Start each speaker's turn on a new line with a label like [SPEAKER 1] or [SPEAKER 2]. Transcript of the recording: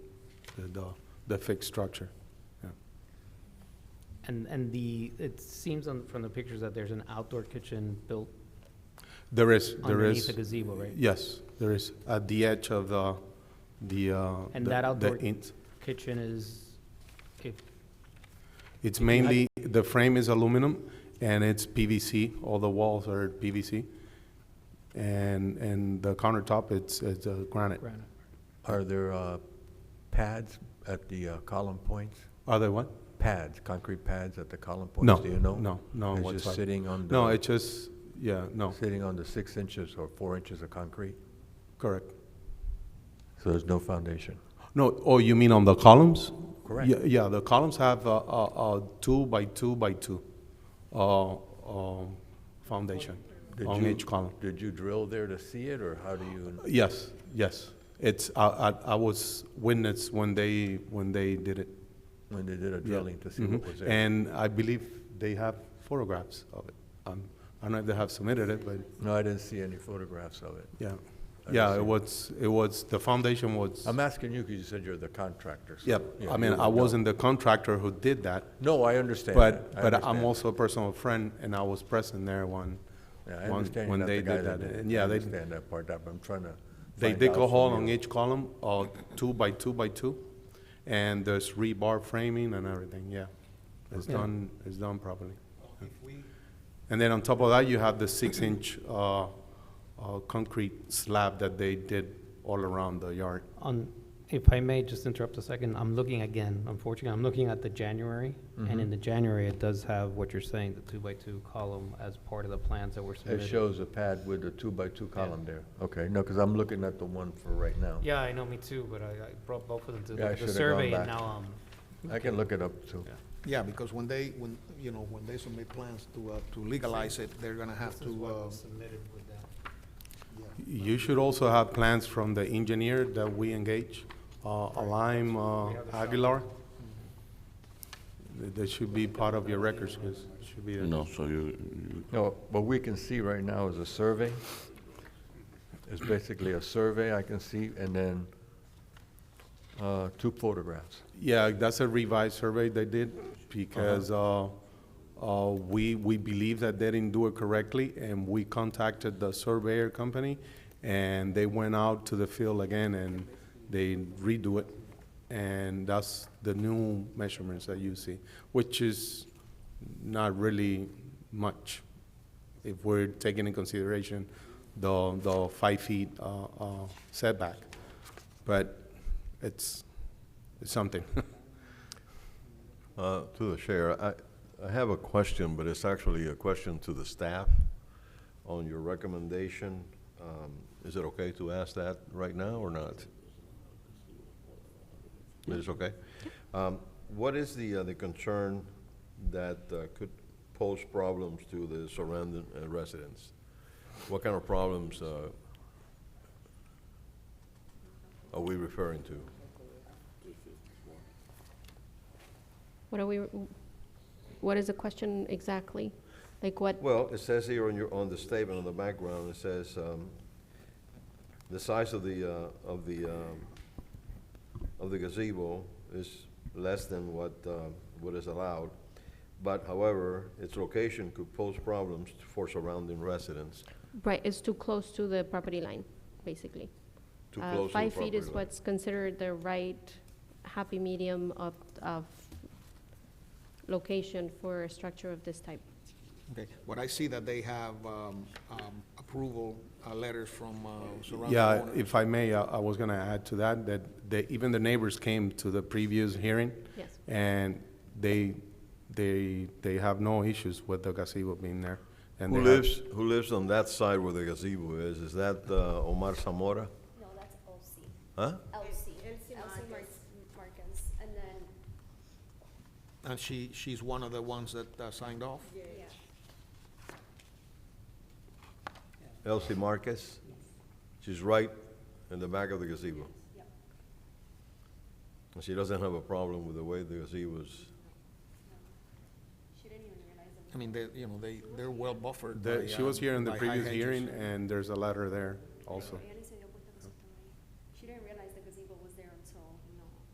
[SPEAKER 1] the- the, the fixed structure.
[SPEAKER 2] And, and the, it seems on, from the pictures that there's an outdoor kitchen built
[SPEAKER 1] There is, there
[SPEAKER 2] underneath the
[SPEAKER 1] is,
[SPEAKER 2] gazebo, right?
[SPEAKER 1] yes, there is, at the edge of the, the, uh.
[SPEAKER 2] And
[SPEAKER 1] the-
[SPEAKER 2] that
[SPEAKER 1] the
[SPEAKER 2] outdoor-
[SPEAKER 1] ins-
[SPEAKER 2] Kitchen is, if,
[SPEAKER 1] It's mainly, the frame is aluminum and it's PVC, all the walls are PVC. And, and the countertop, it's, it's uh, granite.
[SPEAKER 2] granite.
[SPEAKER 3] Are there uh, pads at the uh, column points?
[SPEAKER 1] Are there what?
[SPEAKER 3] Pads, concrete pads at the column points?
[SPEAKER 1] No,
[SPEAKER 3] Do you know?
[SPEAKER 1] no, no
[SPEAKER 3] It's just
[SPEAKER 1] whatsoever.
[SPEAKER 3] sitting on the.
[SPEAKER 1] No, it's just, yeah, no,
[SPEAKER 3] Sitting on the six inches or four inches of concrete?
[SPEAKER 1] correct.
[SPEAKER 3] So there's no foundation?
[SPEAKER 1] No, oh, you mean on the columns?
[SPEAKER 3] Correct.
[SPEAKER 1] Yeah, yeah, the columns have a, a, a two by two by two, uh, um, foundation
[SPEAKER 3] Did
[SPEAKER 1] on
[SPEAKER 3] you-
[SPEAKER 1] each column.
[SPEAKER 3] Did you drill there to see it, or how do you?
[SPEAKER 1] Yes, yes. It's, I, I, I was witness when they, when they did it.
[SPEAKER 3] When they did a
[SPEAKER 1] Yeah.
[SPEAKER 3] drilling to see
[SPEAKER 1] Mhm.
[SPEAKER 3] what was there?
[SPEAKER 1] And I believe they have photographs of it. Um, I don't know if they have submitted it, but,
[SPEAKER 3] No, I didn't see any photographs of it.
[SPEAKER 1] yeah.
[SPEAKER 3] I
[SPEAKER 1] Yeah,
[SPEAKER 3] see.
[SPEAKER 1] it was, it was, the foundation was,
[SPEAKER 3] I'm asking you because you said you're the contractor. so,
[SPEAKER 1] yep.
[SPEAKER 3] yeah,
[SPEAKER 1] I
[SPEAKER 3] you
[SPEAKER 1] mean,
[SPEAKER 3] would
[SPEAKER 1] I
[SPEAKER 3] know.
[SPEAKER 1] wasn't the contractor who did that,
[SPEAKER 3] No, I understand.
[SPEAKER 1] But,
[SPEAKER 3] that. I
[SPEAKER 1] but
[SPEAKER 3] understand
[SPEAKER 1] I'm also a personal friend, and I was present there when,
[SPEAKER 3] that. Yeah, I
[SPEAKER 1] one-
[SPEAKER 3] understand you're
[SPEAKER 1] when
[SPEAKER 3] not the
[SPEAKER 1] they
[SPEAKER 3] guy
[SPEAKER 1] did that.
[SPEAKER 3] it.
[SPEAKER 1] And yeah,
[SPEAKER 3] I
[SPEAKER 1] they,
[SPEAKER 3] understand that part, but I'm trying to.
[SPEAKER 1] they
[SPEAKER 3] find
[SPEAKER 1] dig
[SPEAKER 3] out
[SPEAKER 1] a
[SPEAKER 3] from
[SPEAKER 1] hole
[SPEAKER 3] you.
[SPEAKER 1] on each column, uh, two by two by two, and there's rebar framing and everything, yeah. It's
[SPEAKER 2] Yeah.
[SPEAKER 1] done, it's done properly.
[SPEAKER 4] If we,
[SPEAKER 1] And then on top of that, you have the six-inch, uh, uh, concrete slab that they did all around the yard.
[SPEAKER 2] On, if I may just interrupt a second, I'm looking again, unfortunately, I'm looking at the January, and in the January, it does have what you're saying, the two-by-two column as part of the plans that were
[SPEAKER 3] It
[SPEAKER 2] submitted.
[SPEAKER 3] shows a pad with a two-by-two column there. Okay, no, because I'm looking at the one for right now.
[SPEAKER 2] Yeah, I know, me too, but I, I brought both of them to
[SPEAKER 3] Yeah, I
[SPEAKER 2] the- the
[SPEAKER 3] should've
[SPEAKER 2] survey,
[SPEAKER 3] gone
[SPEAKER 2] and
[SPEAKER 3] back.
[SPEAKER 2] now, um,
[SPEAKER 3] I can look it up too.
[SPEAKER 2] Yeah.
[SPEAKER 4] yeah, because when they, when, you know, when they submit plans to, uh, to legalize it, they're gonna
[SPEAKER 2] um,
[SPEAKER 4] have
[SPEAKER 2] this is
[SPEAKER 4] to,
[SPEAKER 2] what
[SPEAKER 4] uh,
[SPEAKER 2] was submitted with that.
[SPEAKER 4] yeah.
[SPEAKER 1] You should also have plans from the engineer that we engage, uh, Alime uh, Aguilar. Th- That should be part of your records, 'cause it should be. there.
[SPEAKER 5] No, so you, you-
[SPEAKER 3] No, what we can see right now is a survey. It's basically a survey I can see, and then uh, two photographs.
[SPEAKER 1] Yeah, that's a revised survey they did, because uh, uh, we, we believe that they didn't do it correctly, and we contacted the surveyor company, and they went out to the field again, and they redo it. And that's the new measurements that you see, which is not really much, if we're taking in consideration the, the five feet uh, uh, setback. But it's, it's something.
[SPEAKER 6] Uh, To the chair, I, I have a question, but it's actually a question to the staff on your recommendation. Um, Is it okay to ask that right now or not? It is okay? Um, What is the, uh, the concern that uh, could pose problems to the surrounding uh, residents? What kind of problems uh, are we referring to?
[SPEAKER 7] What are we, what is the question exactly? Like what,
[SPEAKER 6] Well, it says here on your, on the statement on the background, it says, um, the size of the, uh, of the, um, of the gazebo is less than what, uh, what is allowed. But however, its location could pose problems for surrounding residents,
[SPEAKER 7] right, it's too close to the property line, basically.
[SPEAKER 6] too
[SPEAKER 7] Uh,
[SPEAKER 6] close to the
[SPEAKER 7] Five feet
[SPEAKER 6] property
[SPEAKER 7] is
[SPEAKER 6] line.
[SPEAKER 7] what's considered the right happy medium of, of location for a structure of this type.
[SPEAKER 4] Okay, what I see that they have, um, um, approval, uh, letters from, uh, surrounding
[SPEAKER 1] Yeah,
[SPEAKER 4] owners.
[SPEAKER 1] if I may, uh, I I was going to add to that, that they, even the neighbors came to the previous hearing,
[SPEAKER 7] Yes.
[SPEAKER 1] and they, they, they have no issues with the gazebo being there. and
[SPEAKER 6] Who
[SPEAKER 1] they have-
[SPEAKER 6] lives, who lives on that side where the gazebo is? Is that, uh, Omar Zamora?
[SPEAKER 8] No, that's OC.
[SPEAKER 6] Huh?
[SPEAKER 8] LC. LC Markins. And then,
[SPEAKER 4] And she, she's one of the ones that uh, signed off?
[SPEAKER 8] yeah.
[SPEAKER 6] Elsie Marquez? She's right in the back of the gazebo. And she doesn't have a problem with the way the gazebo's,
[SPEAKER 4] I mean, they, you know, they, they're well buffered
[SPEAKER 1] the-
[SPEAKER 4] by,
[SPEAKER 1] She
[SPEAKER 4] uh,
[SPEAKER 1] was here in the
[SPEAKER 4] by high
[SPEAKER 1] previous
[SPEAKER 4] hedges.
[SPEAKER 1] hearing, and there's a letter there also.